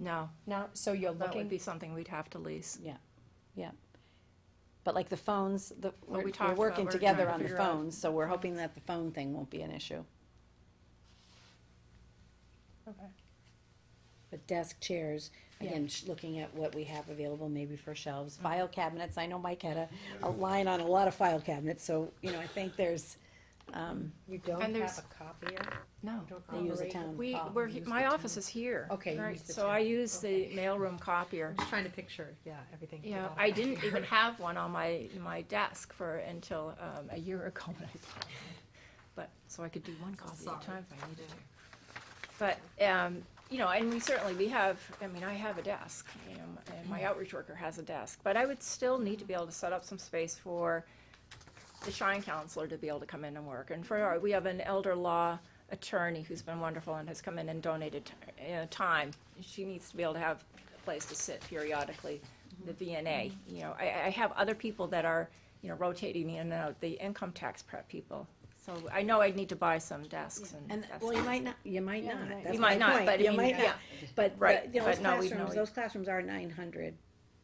No, No, so you're that would looking, be something we'd have to lease. but like the phones, the, Well, we we're, we're talked about working we're together trying to on the figure out- phones, so we're hoping that the phone thing won't be an issue. Okay. But desk chairs, again, sh- looking at what we have available maybe for shelves, Mm-hmm. file cabinets, I know Mike had a, a line on a lot of file cabinets, so, you know, I think there's, um, You don't And have there's- a copier? No. You don't they use a operate- town. We, file. we're, Oh, use my the office town. is here. Okay, you right, use the So I town, use the okay. mailroom copier. I'm just trying to picture, yeah, everything. You know, without a I didn't copier. even have one on my, my desk for, until, um, a year ago when I bought it. But, so I could do one copy at sorry. a time if I needed to. But, um, you know, and we certainly, we have, I mean, I have a desk, you know, and Mm. my outreach worker has a desk. But I would still need to be able to set up some space for the Shine Counselor to be able to come in and work. And for, our- we have an elder law attorney who's been wonderful and has come in and donated ti- uh, time. She needs to be able to have a place to sit periodically, the VNA. You know, I, I have other people that are, you know, rotating in and out, the income tax prep people. So I know I'd need to buy some desks and And, desks. well, you might not, you might not, that's You my might not, point. but I You mean, might not. yeah. But, Right, but, you know, those but no, we classrooms, know- those classrooms are nine hundred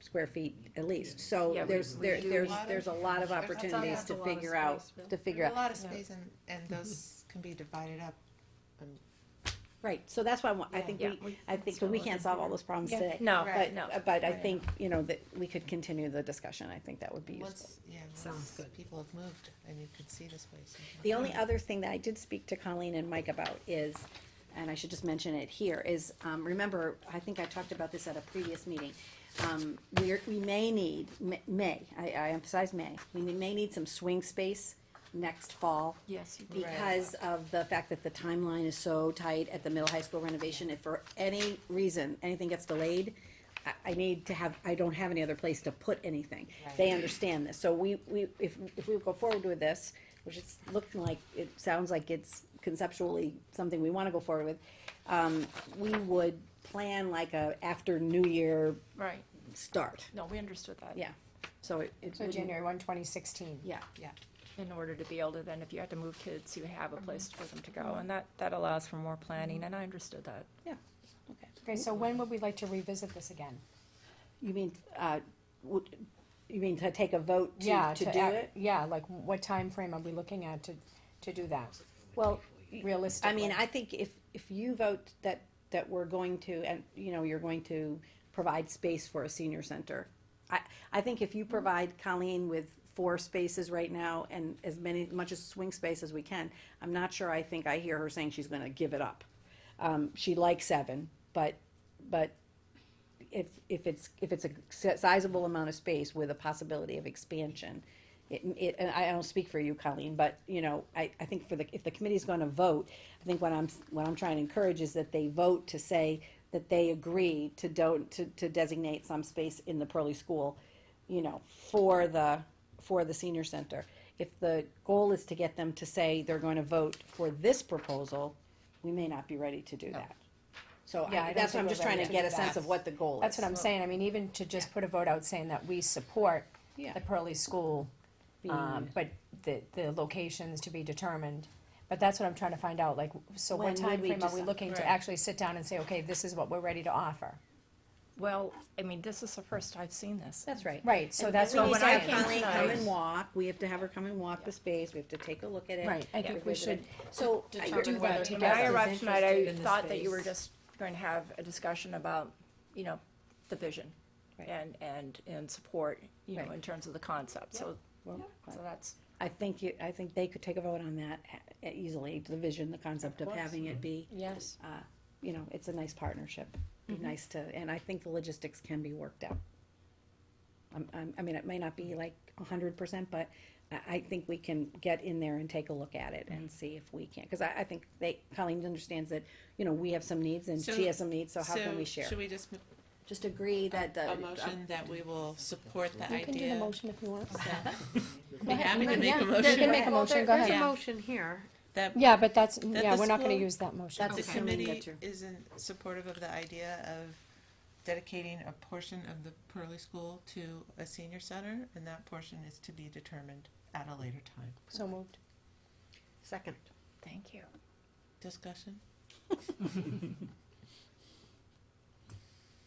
square feet at least, so Yeah, we- there's, we there, do there's, need- there's a lot of That's a- opportunities that's to a lot of figure out, space, yeah. to figure There's a out. lot of Yeah. space and, and those can be divided up. Right, so that's why I want- I think Yeah, we, we- I think, we can't solve all those problems Yeah. today. No, Right. no. But, uh, but I Right. think, you know, that we could continue the discussion, I think that would be useful. Once, yeah, Sounds once good. people have moved and you can see this place. The only other thing that I did speak to Colleen and Mike about is, and I should just mention it here, is, um, remember, I think I talked about this at a previous meeting. Um, we're, we may need, ma- may, I, I emphasize may, we may need some swing space next fall Yes, you do. Right. because of the fact that the timeline is so tight at the middle high school renovation, if for any reason, anything gets delayed, I, I need to have, I don't have any other place to put anything. They understand this, so we, we, if, if we go forward with this, which it's looking like, it sounds like it's conceptually something we wanna go forward with, um, we would plan like a after New Year Right. start, No, we understood that. yeah, so it, it So wouldn't- January one, twenty sixteen. Yeah, in order to be able to then, if you had to move kids, you have a place for them to go, and that, that allows for more planning, Mm-hmm. and I understood that. okay. Okay, so when would we like to revisit this again? You mean, uh, would, you mean to take a vote Yeah, to, to do act- it? Yeah, like what time frame are we looking at to, to do that Well, I realistically? mean, I think if, if you vote that, that we're going to, and, you know, you're going to provide space for a senior center. I, I think if you provide Colleen with four spaces right now and as many, much as swing space as we can, I'm not sure, I think I hear her saying she's gonna give it up. Um, she likes seven, but, but if, if it's, if it's a sizable amount of space with a possibility of expansion, it, it, and I don't speak for you, Colleen, but, you know, I, I think for the, if the committee's gonna vote, I think what I'm, what I'm trying to encourage is that they vote to say that they agree to don't, to, to designate some space in the Pearly School, you know, for the, for the senior center. If the goal is to get them to say they're gonna vote for this proposal, we may not be ready to do that. So I- Yeah, I don't that's what think I'm we're just trying ready to to get do a sense that. of what the goal is. That's what I'm saying, I mean, even to just put a vote out saying that we support Yeah. the Pearly School, um, but the, the locations to be determined. But that's what I'm trying to find out, like, so When what would time we frame are we decide? looking to Right. actually sit down and say, okay, this is what we're ready to offer? Well, I mean, this is the first I've seen this. That's right. Right, so And that's we what when need we're to I have saying. came Colleen come tonight- and walk, we have to have her come and walk the space, we have to take a look at it. Right, I think we revisit it. should So. I- determine you're- whether When together. I Is arrived tonight, I in the thought that you were space. just going to have a discussion about, you know, the vision Right. and, and, and support, you know, Right. in terms of the concept, so, well, so that's, I think you, I think they could take a vote on that e- easily, the vision, the concept of having it be, Yes. you know, it's a nice partnership. Be nice to, and I think the logistics can be worked out. I'm, I'm, I mean, it may not be like a hundred percent, but I, I think we can get in there and take a look at it and see if we can. Cause I, I think they, Colleen understands that, you know, we have some needs and So- she has some needs, so how can we share? Uh, Should we just, m- Just agree that the. a um, motion that we will support the You can do the idea? motion if you want. Be happy to make Yeah, a you motion. can make a Well, motion, there- go There's ahead. a Yeah. motion here. That Yeah, but that's, yeah, the we're not gonna school- use that motion. That's the assuming committee that you're- isn't supportive of the idea of dedicating a portion of the Pearly School to a senior center, and that portion is to be determined at a later time. So moved. Second. thank you. Discussion?